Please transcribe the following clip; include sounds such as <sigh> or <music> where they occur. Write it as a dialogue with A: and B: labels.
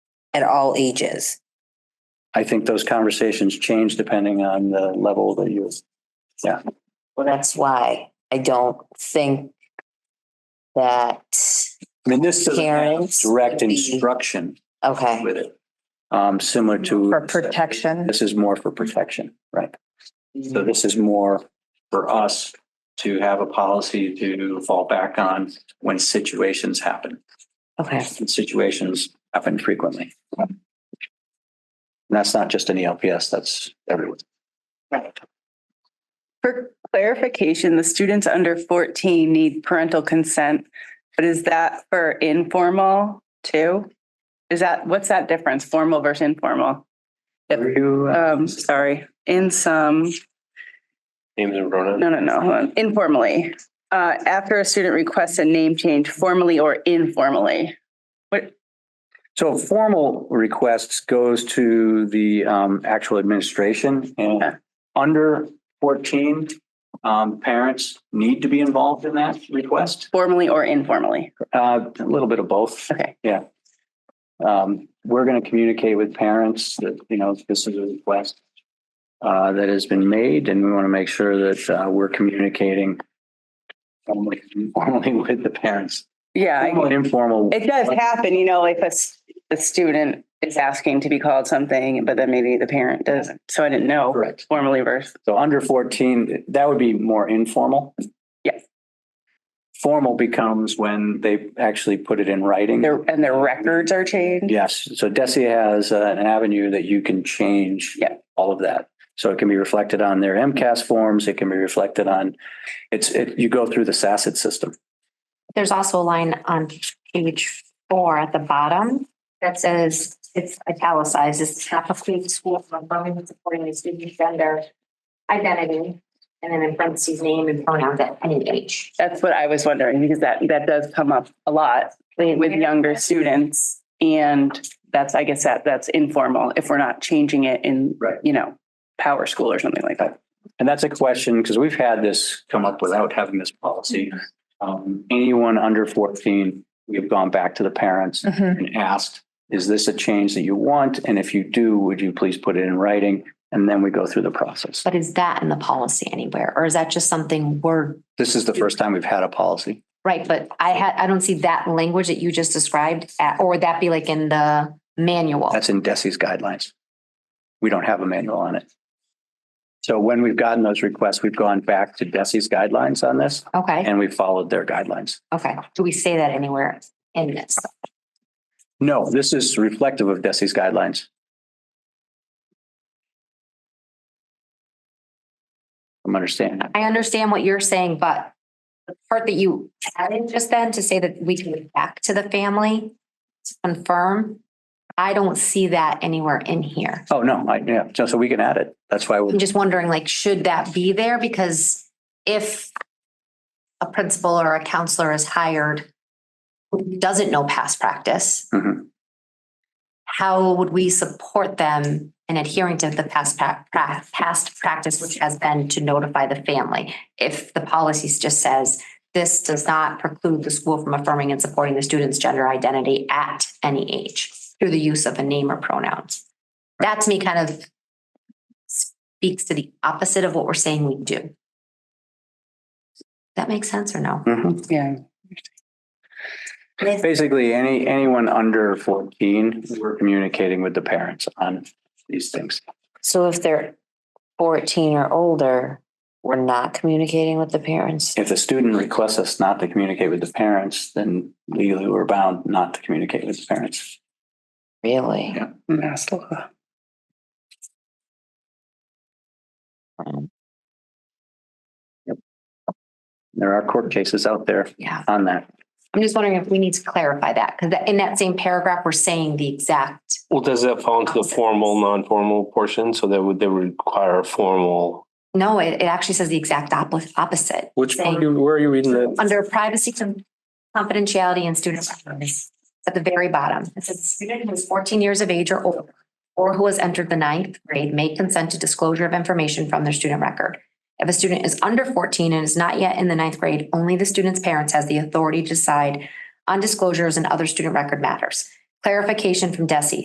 A: at all ages.
B: I think those conversations change depending on the level that you,
C: Well, that's why I don't think that,
B: I mean, this doesn't have
C: Parents
B: direct
C: would be-
B: instruction
C: okay,
B: with it. Um, similar to.
D: For protection.
B: This is more for protection, right? So this is more for us to have a policy to fall back on when situations happen.
C: okay.
B: And situations happen frequently. And that's not just an E ELPS, that's everywhere.
E: For clarification, the students under 14 need parental consent, but is that for informal too? Is that, what's that difference, formal versus informal? Yep.
B: You, uh,
E: Um, sorry, in some,
F: Names and pronouns.
E: no, no, no, hold on. informally. Uh, after a student requests a name change formally or informally.
B: So formal requests goes to the um actual administration and under fourteen. Um, parents need to be involved in that request,
E: Formally or informally.
B: uh, a little bit of both.
E: Okay.
B: Yeah. Um, we're gonna communicate with parents that, you know, this is a request. Uh, that has been made and we want to make sure that uh we're communicating. Formally, <laughs> formally with the parents,
E: Yeah, I-
B: Formal and informal.
E: it does happen, you know, like a, s- a student is asking to be called something, but then maybe the parent doesn't. So I didn't know.
B: Correct.
E: formally versus
B: So under fourteen, that would be more informal.
E: Yes.
B: Formal becomes when they actually put it in writing.
E: their and their records are changed.
B: Yes, so Desi has uh, an avenue that you can change.
E: Yeah.
B: All of that. So it can be reflected on their MCAS forms. It can be reflected on, it's, it, you go through the SACIT system.
G: There's also a line on page four at the bottom that says, it's italicized, it's not a free school for Birmingham supporting the student gender identity, and then in parentheses, name and pronouns at any age.
E: That's what I was wondering because that that does come up a lot with younger students. And that's I guess that that's informal if we're not changing it in
B: Right.
E: you know, power school or something like that.
B: And that's a question, because we've had this come up without having this policy.
E: Mm-hmm.
B: Um, anyone under fourteen, we've gone back to the parents
D: Mhm.
B: and asked, is this a change that you want? And if you do, would you please put it in writing? And then we go through the process.
G: But is that in the policy anywhere, or is that just something we're,
B: This is the first time we've had a policy.
G: right, but I had, I don't see that language that you just described, at- or would that be like in the manual?
B: That's in DESI's guidelines. We don't have a manual on it. So when we've gotten those requests, we've gone back to DESI's guidelines on this
G: Okay,
B: and we followed their guidelines.
G: okay. Do we say that anywhere in this?
B: No, this is reflective of DESI's guidelines. I'm understanding. that.
G: I understand what you're saying, but the part that you added just then to say that we can get back to the family to confirm, I don't see that anywhere in here.
B: Oh, no, I, yeah, so, so we can add it. That's why
G: I'm
B: we,
G: just wondering, like, should that be there? Because if a principal or a counselor is hired who doesn't know past practice,
B: Mhm.
G: how would we support them in adhering to the past pra- pra- past practice, which has been to notify the family? If the policy just says this does not preclude the school from affirming and supporting the student's gender identity at any age through the use of a name or pronouns. That to me kind of speaks to the opposite of what we're saying we do. Does That makes sense or no?
B: Mhm.
E: Yeah.
B: basically, any, anyone under fourteen, we're communicating with the parents on these things.
C: So if they're fourteen or older, we're not communicating with the parents.
B: If the student requests us not to communicate with the parents, then legally we're bound not to communicate with the parents.
C: Really?
B: Yeah.
E: Mass law.
B: There are court cases out there
G: Yeah.
B: on that.
G: I'm just wondering if we need to clarify that because in that same paragraph, we're saying the exact,
F: Well, does that fall into the formal, non-formal portion? So that would, they would require a formal.
G: no, it, it actually says the exact oppo- opposite.
F: Which,
G: part
F: part? where are you reading that?
G: Under privacy, con- confidentiality and student records, at the very bottom, it says the student who is fourteen years of age or older or who has entered the ninth grade may consent to disclosure of information from their student record. If a student is under fourteen and is not yet in the ninth grade, only the student's parents has the authority to decide on disclosures and other student record matters. Clarification from Desi.